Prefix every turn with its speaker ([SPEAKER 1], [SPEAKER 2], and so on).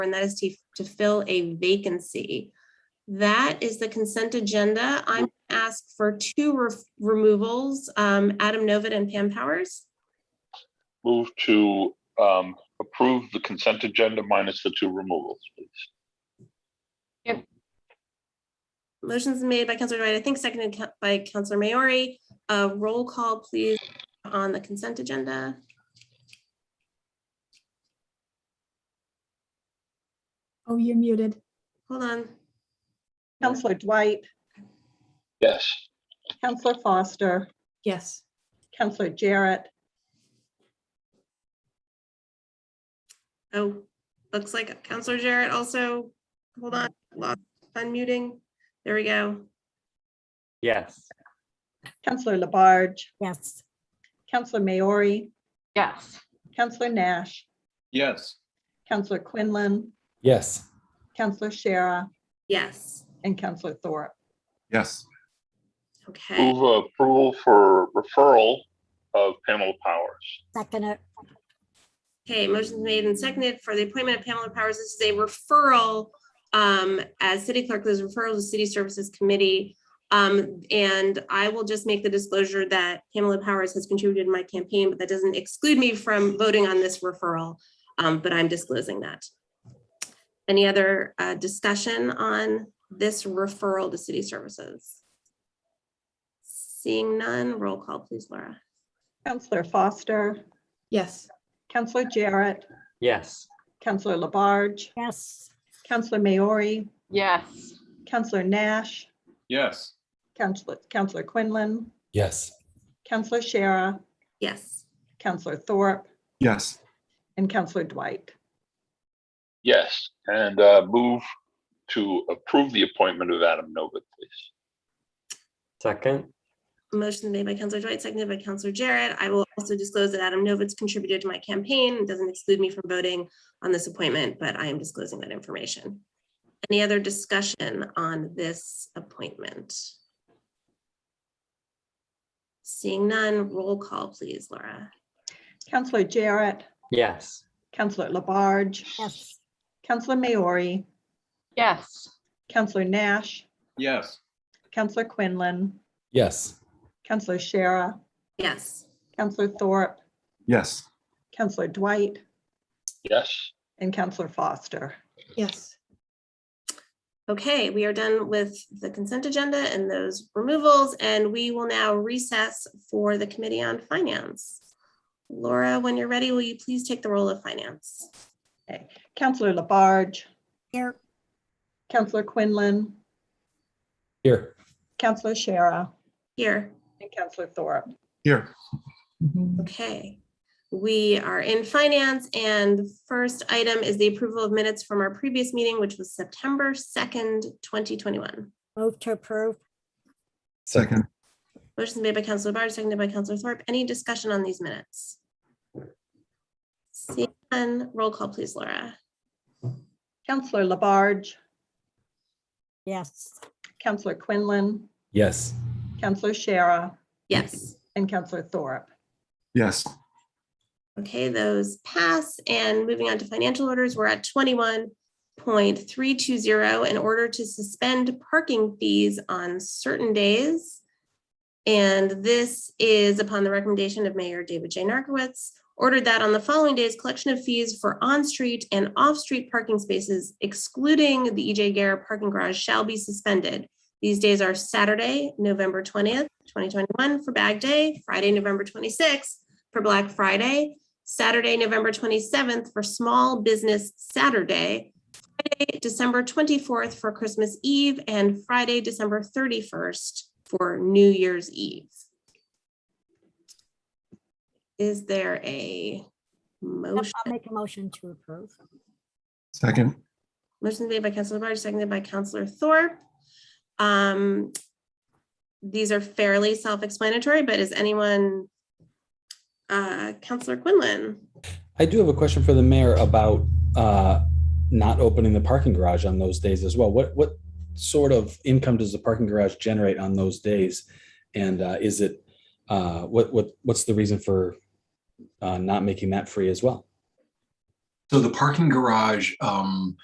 [SPEAKER 1] and that is to, to fill a vacancy. That is the consent agenda. I'm asked for two ref- removals, um, Adam Novit and Pam Powers.
[SPEAKER 2] Move to um approve the consent agenda minus the two removals, please.
[SPEAKER 1] Motion's made by Counselor Dwight, I think seconded ca- by Counselor Maori. Uh, roll call, please, on the consent agenda.
[SPEAKER 3] Oh, you're muted.
[SPEAKER 1] Hold on.
[SPEAKER 4] Counselor Dwight,
[SPEAKER 2] Yes.
[SPEAKER 4] Counselor Foster,
[SPEAKER 3] Yes.
[SPEAKER 4] Counselor Jarrett,
[SPEAKER 1] Oh, looks like Counselor Jarrett also, hold on, lost unmuting. There we go.
[SPEAKER 5] Yes.
[SPEAKER 4] Counselor Labarge,
[SPEAKER 6] Yes.
[SPEAKER 4] Counselor Maori,
[SPEAKER 6] Yes.
[SPEAKER 4] Counselor Nash,
[SPEAKER 7] Yes.
[SPEAKER 4] Counselor Quinlan,
[SPEAKER 5] Yes.
[SPEAKER 4] Counselor Shara,
[SPEAKER 1] Yes,
[SPEAKER 4] and Counselor Thorpe.
[SPEAKER 7] Yes.
[SPEAKER 1] okay.
[SPEAKER 2] Move approval for referral of Pamela Powers.
[SPEAKER 6] Second it.
[SPEAKER 1] Okay, motion's made and seconded for the appointment of Pamela Powers. This is a referral um, as city clerk, this is referral to City Services Committee. Um, and I will just make the disclosure that Pamela Powers has contributed in my campaign, but that doesn't exclude me from voting on this referral. Um, but I'm disclosing that. Any other uh, discussion on this referral to city services? Seeing none, roll call, please, Laura.
[SPEAKER 4] Counselor Foster,
[SPEAKER 3] Yes.
[SPEAKER 4] Counselor Jarrett,
[SPEAKER 5] Yes.
[SPEAKER 4] Counselor Labarge,
[SPEAKER 6] Yes.
[SPEAKER 4] Counselor Maori,
[SPEAKER 6] Yes.
[SPEAKER 4] Counselor Nash,
[SPEAKER 7] Yes.
[SPEAKER 4] Counselor, Counselor Quinlan,
[SPEAKER 5] Yes.
[SPEAKER 4] Counselor Shara,
[SPEAKER 1] Yes.
[SPEAKER 4] Counselor Thorpe,
[SPEAKER 7] Yes.
[SPEAKER 4] and Counselor Dwight.
[SPEAKER 2] Yes, and uh move to approve the appointment of Adam Novit, please.
[SPEAKER 5] Second.
[SPEAKER 1] Motion made by Counselor Dwight, seconded by Counselor Jarrett. I will also disclose that Adam Novitz contributed to my campaign and doesn't exclude me from voting on this appointment, but I am disclosing that information. Any other discussion on this appointment? Seeing none, roll call, please, Laura.
[SPEAKER 4] Counselor Jarrett,
[SPEAKER 5] Yes.
[SPEAKER 4] Counselor Labarge,
[SPEAKER 6] Yes.
[SPEAKER 4] Counselor Maori,
[SPEAKER 6] Yes.
[SPEAKER 4] Counselor Nash,
[SPEAKER 7] Yes.
[SPEAKER 4] Counselor Quinlan,
[SPEAKER 5] Yes.
[SPEAKER 4] Counselor Shara,
[SPEAKER 1] Yes.
[SPEAKER 4] Counselor Thorpe,
[SPEAKER 7] Yes.
[SPEAKER 4] Counselor Dwight,
[SPEAKER 2] Yes,
[SPEAKER 4] and Counselor Foster.
[SPEAKER 3] Yes.
[SPEAKER 1] Okay, we are done with the consent agenda and those removals, and we will now recess for the Committee on Finance. Laura, when you're ready, will you please take the role of Finance?
[SPEAKER 4] Counselor Labarge,
[SPEAKER 6] Here.
[SPEAKER 4] Counselor Quinlan,
[SPEAKER 5] Here.
[SPEAKER 4] Counselor Shara,
[SPEAKER 1] Here,
[SPEAKER 4] and Counselor Thorpe.
[SPEAKER 7] Here.
[SPEAKER 1] okay. We are in finance and the first item is the approval of minutes from our previous meeting, which was September second, twenty twenty-one.
[SPEAKER 6] Move to approve.
[SPEAKER 7] Second.
[SPEAKER 1] Motion made by Counselor Barge, seconded by Counselor Thorpe. Any discussion on these minutes? Seeing none, roll call please, Laura.
[SPEAKER 4] Counselor Labarge,
[SPEAKER 6] Yes.
[SPEAKER 4] Counselor Quinlan,
[SPEAKER 5] Yes.
[SPEAKER 4] Counselor Shara,
[SPEAKER 1] Yes,
[SPEAKER 4] and Counselor Thorpe.
[SPEAKER 7] Yes.
[SPEAKER 1] okay, those pass. And moving on to financial orders, we're at twenty-one point three two zero in order to suspend parking fees on certain days. And this is upon the recommendation of Mayor David J. Narcoitz, ordered that on the following days, collection of fees for on-street and off-street parking spaces excluding the EJ Garrett parking garage shall be suspended. These days are Saturday, November twentieth, twenty twenty-one for Bag Day, Friday, November twenty-sixth for Black Friday, Saturday, November twenty-seventh for Small Business Saturday, Friday, December twenty-fourth for Christmas Eve, and Friday, December thirty-first for New Year's Eve. Is there a
[SPEAKER 6] I'll
[SPEAKER 1] motion?
[SPEAKER 6] make a motion to approve.
[SPEAKER 7] Second.
[SPEAKER 1] Motion made by Counselor Labarge, seconded by Counselor Thorpe. Um, These are fairly self-explanatory, but is anyone? uh, Counselor Quinlan,
[SPEAKER 8] I do have a question for the mayor about uh, not opening the parking garage on those days as well. What what sort of income does the parking garage generate on those days? And uh, is it uh, what what what's the reason for uh, not making that free as well?
[SPEAKER 7] So the parking garage, um,